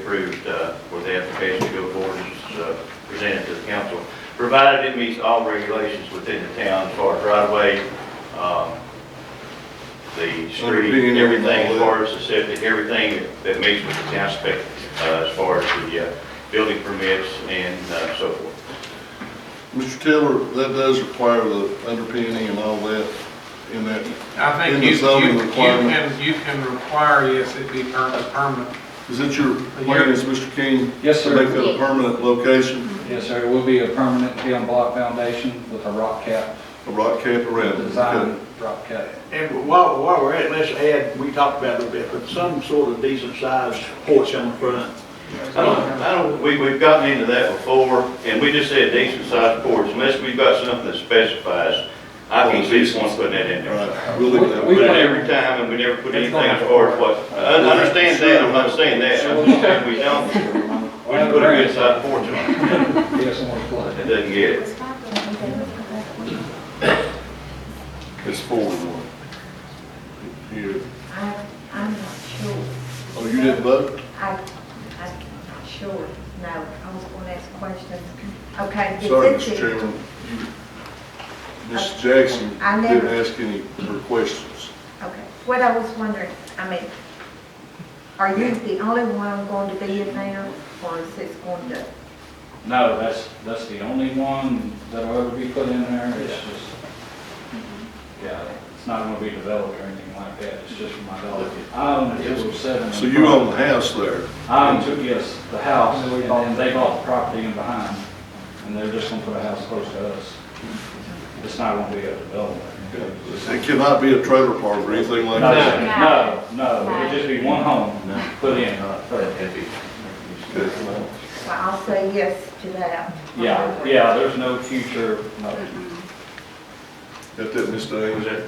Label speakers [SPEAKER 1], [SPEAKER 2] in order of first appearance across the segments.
[SPEAKER 1] approved, uh, for the application to go forward as uh, presented to the council, provided it meets all regulations within the town as far as right-of-way, um, the street,
[SPEAKER 2] Underpinning
[SPEAKER 1] everything, as
[SPEAKER 2] all
[SPEAKER 1] far as the septic, everything that meets with the town spec, uh, as far as the uh, building permits and uh, so forth.
[SPEAKER 2] Mr. Tiller, that does require the underpinning and all that in that,
[SPEAKER 3] I
[SPEAKER 2] In
[SPEAKER 3] think
[SPEAKER 2] the
[SPEAKER 3] you, you
[SPEAKER 2] zoning
[SPEAKER 3] you
[SPEAKER 2] requirement.
[SPEAKER 3] can, you can require, yes, it be permanent, permanent.
[SPEAKER 2] is that your plan, is Mr. King?
[SPEAKER 4] Yes,
[SPEAKER 2] To make
[SPEAKER 4] sir.
[SPEAKER 2] that a permanent location,
[SPEAKER 4] Yes, sir. It will be a permanent beyond block foundation with a rock cap,
[SPEAKER 2] a rock cap around it?
[SPEAKER 4] design rock cap.
[SPEAKER 5] And while, while we're at, it, let's add, we talked about it a little bit, but some sort of decent sized porch on the front.
[SPEAKER 1] I don't, I don't, we, we've gotten into that before, and we just said decent sized porch, unless we've got something that specifies, I can see someone putting that in
[SPEAKER 2] All
[SPEAKER 1] there.
[SPEAKER 2] right, we'll leave that.
[SPEAKER 1] We put it every time, and we never put anything as far as what, I I understand that, I'm not saying that, I'm just saying we don't, we just put a good sized porch on it,
[SPEAKER 4] Yes, someone's flooded.
[SPEAKER 1] it doesn't get it.
[SPEAKER 6] I
[SPEAKER 2] It's forward one. Here.
[SPEAKER 6] I'm not sure.
[SPEAKER 2] Oh, you didn't vote?
[SPEAKER 6] I, I'm not sure, no, I was going to ask questions. Okay. is
[SPEAKER 2] Sorry,
[SPEAKER 6] this
[SPEAKER 2] Mr.
[SPEAKER 6] it?
[SPEAKER 2] Chairman. You- Ms. Jackson
[SPEAKER 6] I
[SPEAKER 2] didn't
[SPEAKER 6] never-
[SPEAKER 2] ask any of her questions.
[SPEAKER 6] Okay, what I was wondering, I mean, are you the only one going to be in there, or is this going to?
[SPEAKER 4] No, that's, that's the only one that'll ever be put in there. It's just, yeah, it's not gonna be developed or anything like that. It's just for my dog. I own a two oh seven.
[SPEAKER 2] So you own the house there.
[SPEAKER 4] I own, two- yes, the house, and and they bought the property in behind, and they're just gonna put a house close to us. It's not gonna be a development.
[SPEAKER 2] It cannot be a trailer park or anything like
[SPEAKER 4] No,
[SPEAKER 2] that.
[SPEAKER 4] sir. no, no, it'd just be one home put in, uh, for-
[SPEAKER 6] Well, I'll say yes to that.
[SPEAKER 4] Yeah, yeah, there's no future, no.
[SPEAKER 2] Got that, Ms.
[SPEAKER 1] Was
[SPEAKER 2] Daniels?
[SPEAKER 1] that,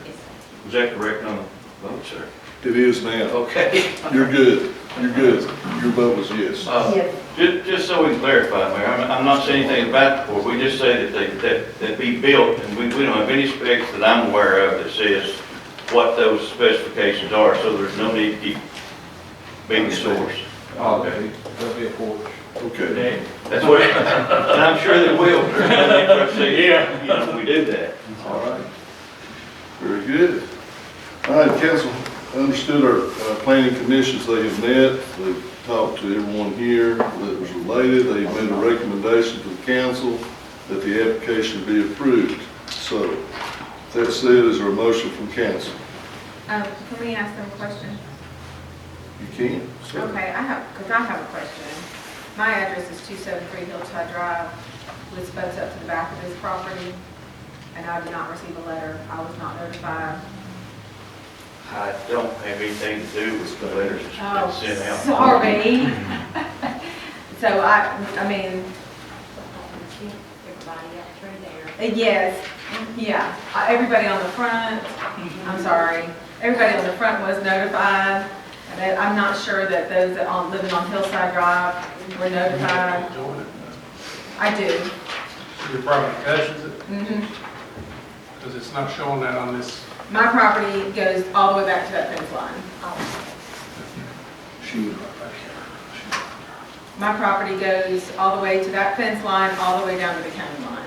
[SPEAKER 1] was that correct on the vote, sir?
[SPEAKER 2] It is now.
[SPEAKER 1] Okay.
[SPEAKER 2] You're good. You're good. Your vote was yes.
[SPEAKER 1] Uh,
[SPEAKER 6] Yes.
[SPEAKER 1] Just, just so we can clarify, Mayor, I'm, I'm not saying anything about the port, we just say that they, that, that be built, and we, we don't have any specs that I'm aware of that says what those specifications are, so there's no need to keep being the source.
[SPEAKER 4] Okay. There'll be a porch.
[SPEAKER 2] Okay.
[SPEAKER 1] That's what, and I'm sure they will, there's no need for us to say, yeah, you know, we do that.
[SPEAKER 2] All right. Very good. All right, council, I understood our uh, planning commissions, they have met, they've talked to everyone here that was related, they made a recommendation to the council that the application be approved. So, that said, is there a motion from council?
[SPEAKER 7] Um, can we ask them a question?
[SPEAKER 2] You can, sir.
[SPEAKER 7] Okay, I have, because I have a question. My address is 273 Hillside Drive, which butts up to the back of this property, and I did not receive a letter. I was not notified.
[SPEAKER 1] I don't have anything to do with the letters
[SPEAKER 7] Oh,
[SPEAKER 1] that's been sent out.
[SPEAKER 7] sorry. So I, I mean,
[SPEAKER 6] Everybody up through there.
[SPEAKER 7] yes, yeah, Uh, everybody on the front, I'm sorry, everybody on the front was notified. And I- I'm not sure that those that on- living on Hillside Drive were notified.
[SPEAKER 3] Enjoy it.
[SPEAKER 7] I do.
[SPEAKER 3] Your property touches it,
[SPEAKER 7] Mhm.
[SPEAKER 3] because it's not showing that on this
[SPEAKER 7] My property goes all the way back to that fence line. My property goes all the way to that fence line, all the way down to the county line.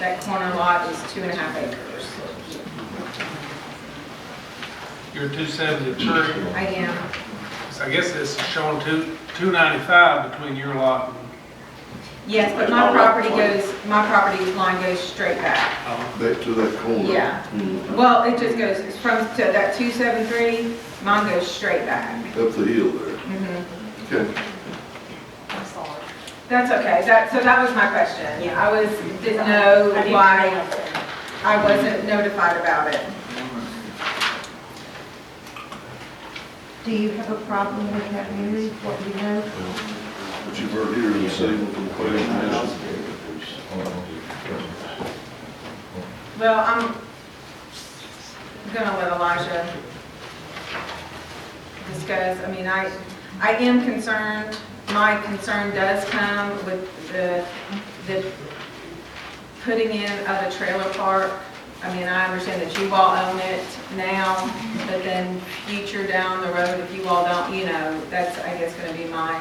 [SPEAKER 7] That corner lot is two and a half acres.
[SPEAKER 3] You're 273,
[SPEAKER 7] I am,
[SPEAKER 3] so I guess it's showing two 295 between your lot and,
[SPEAKER 7] yes, but my property goes, my property line goes straight back.
[SPEAKER 3] oh,
[SPEAKER 2] Back to that corner.
[SPEAKER 7] Yeah.
[SPEAKER 2] Mhm.
[SPEAKER 7] Well, it just goes, it's from, to that 273, mine goes straight back.
[SPEAKER 2] Up the hill there.
[SPEAKER 7] Mhm.
[SPEAKER 2] Okay.
[SPEAKER 6] I'm sorry.
[SPEAKER 7] That's okay, that, so that was my question. I was, didn't know why I wasn't notified about it.
[SPEAKER 6] Do you have a problem with that, Mary, what you know?
[SPEAKER 2] What you've heard here this evening from the planning commission.
[SPEAKER 7] Well, I'm gonna let Elijah discuss, I mean, I, I am concerned, my concern does come with the, the putting in of the trailer park. I mean, I understand that you all own it now, but then future down the road, if you all don't, you know, that's, I guess, gonna be my